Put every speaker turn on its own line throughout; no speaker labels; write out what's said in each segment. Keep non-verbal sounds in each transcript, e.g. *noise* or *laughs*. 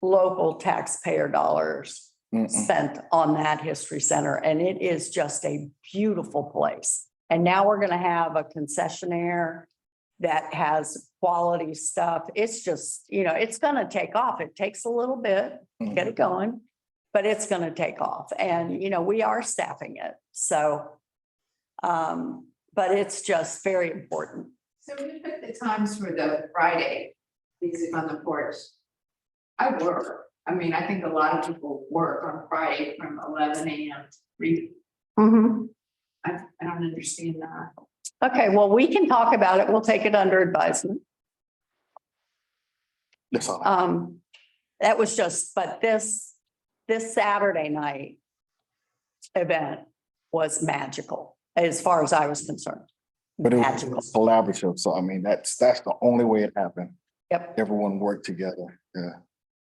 local taxpayer dollars
Mm-mm.
spent on that history center and it is just a beautiful place. And now we're gonna have a concessionaire that has quality stuff. It's just, you know, it's gonna take off. It takes a little bit, get it going. But it's gonna take off and, you know, we are staffing it, so. Um, but it's just very important.
So when you put the times for the Friday music on the porch. I work, I mean, I think a lot of people work on Friday from eleven AM, to three, I, I don't understand that.
Okay, well, we can talk about it. We'll take it under advisement.
That's all. I-
Um, that was just, but this, this Saturday night event was magical, as far as I was concerned.
But it
magical.
was collaborative, so I mean, that's, that's the only way it happened.
Yep.
Everyone worked together, yeah.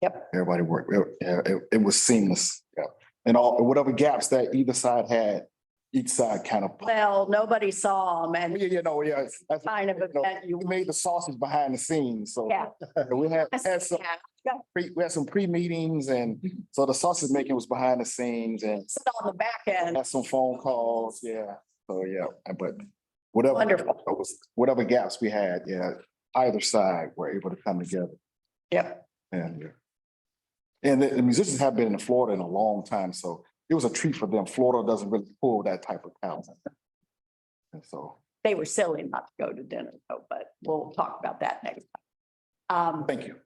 Yep.
Everybody worked, it, yeah, it, it was seamless, yeah. And all, whatever gaps that either side had, each side kind of, yeah,
Well, nobody saw them and
yeah, you know, yeah, that's,
kind of
you know,
event you,
we made the sausage behind the scenes, so.
yeah.
*laughs* We had, had some pre, we had some pre-meetings and so the sausage making was behind the scenes and
Sit on the back end.
had some phone calls, yeah. So, yeah, but whatever.
Wonderful.
it was whatever gaps we had, yeah, either side were able to come together
Yep.
and. yeah. And the the musicians have been in Florida in a long time, so it was a treat for them. Florida doesn't really pull that type of talent. And so
They were silly not to go to dinner though, but we'll talk about that next time. Um,
thank you.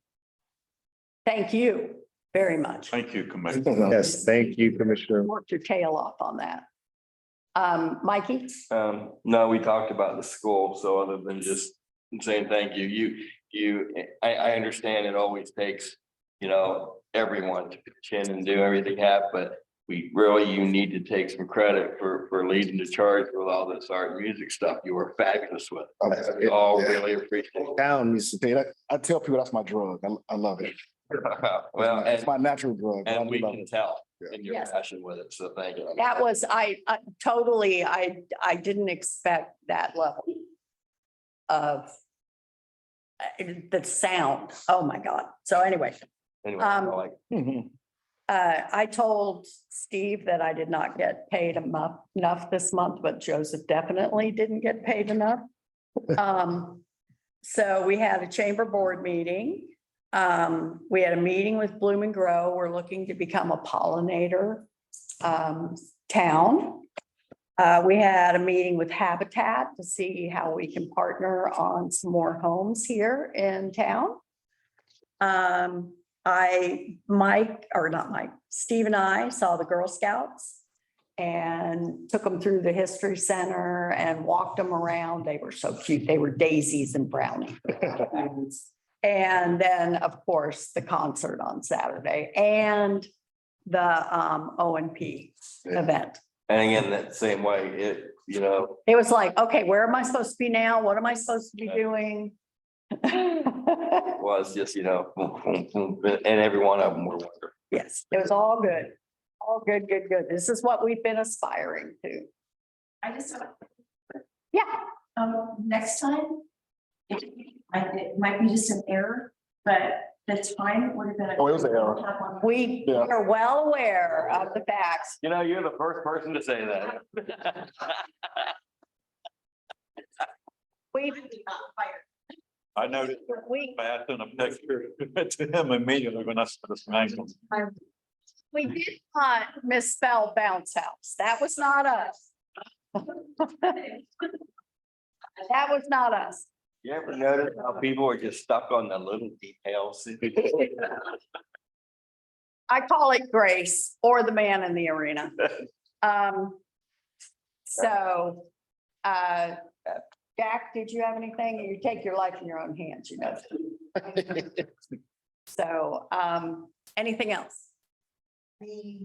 thank you very much.
Thank you, Commissioner.
Yes, thank you, Commissioner.
Worked your tail off on that. Um, Mikey?
Um, no, we talked about the school, so other than just saying thank you, you, you, I, I understand it always takes. You know, everyone to pitch in and do everything half, but we really, you need to take some credit for, for leading the charge with all this art and music stuff. You were fabulous with.
I
it. We all
Oh, yeah.
really appreciate
Down, you said,
Tell you that- I tell people that's my drug. I, I love it. It's
*laughs* it.
my-
Well,
It's
and,
my natural drug. I
and we
love
can
it.
tell
Yeah.
in your
Yes.
passion with it, so thank you.
That was, I, I totally, I, I didn't expect that level of uh, the sound. Oh, my God. So anyway,
Anyway, I
um,
like-
Mhm.
uh, I told Steve that I did not get paid emu- enough this month, but Joseph definitely didn't get paid enough. Um, so we had a chamber board meeting. Um, we had a meeting with Bloom and Grow. We're looking to become a pollinator um, town. Uh, we had a meeting with Habitat to see how we can partner on some more homes here in town. Um, I, Mike, or not Mike, Steve and I saw the Girl Scouts and took them through the History Center and walked them around. They were so cute. They were daisies and brownies. And then, of course, the concert on Saturday and the um, O and P
Yeah.
event.
And again, that same way, it, you know,
It was like, okay, where am I supposed to be now? What am I supposed to be doing?
was just, you know, *laughs* boom, boom, boom, and every one of them were wonderful.
Yes, it was all good. All good, good, good. This is what we've been aspiring to.
I just don't.
Yeah.
Um, next time. It, I- it might be just an error, but the time would have been.
Oh, it was an error.
Have one.
We
Yeah.
are well aware of the facts.
You know, you're the first person to say that.
We,
I noticed
we,
I sent a picture *laughs* to him immediately when I saw this name.
we did not misspell bounce house. That was not us. *laughs* That was not us.
You ever notice how people are just stuck on the little details? *laughs*
I call it grace or the man in the arena. Um, so, uh, Jack, did you have anything? You take your life in your own hands, you know? So, um, anything else?
We,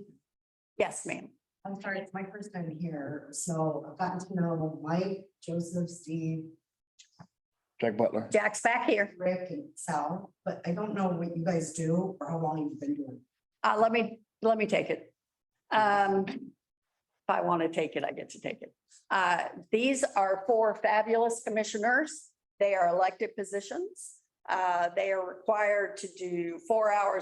Yes, ma'am.
I'm sorry, it's my first time here, so I've gotten to know Mike, Joseph, Steve,
Jack Butler.
Jack's back here.
Rick and Sal, but I don't know what you guys do or how long you've been doing.
Uh, let me, let me take it. Um, if I want to take it, I get to take it. Uh, these are four fabulous commissioners. They are elected positions. Uh, they are required to do four hours